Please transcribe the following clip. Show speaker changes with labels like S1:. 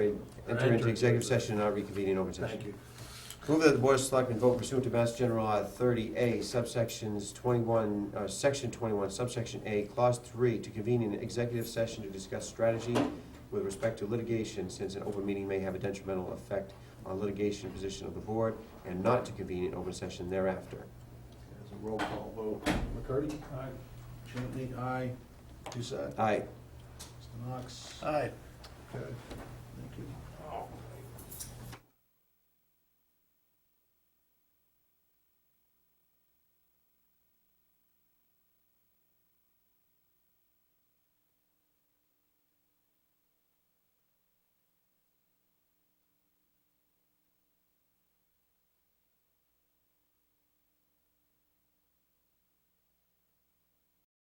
S1: Enter into executive session and not reconvene in open session.
S2: Thank you.
S1: Move that the Board of Selectmen vote pursuant to Mass General Law thirty A subsections twenty-one, uh, section twenty-one, subsection A, clause three, to convene an executive session to discuss strategy with respect to litigation, since an open meeting may have a detrimental effect on litigation position of the board, and not to convene an open session thereafter.
S2: There's a roll call vote. McCarty? Aye. Chantley, aye. Doucette?
S1: Aye.
S2: Mr. Knox? Aye. Okay, thank you.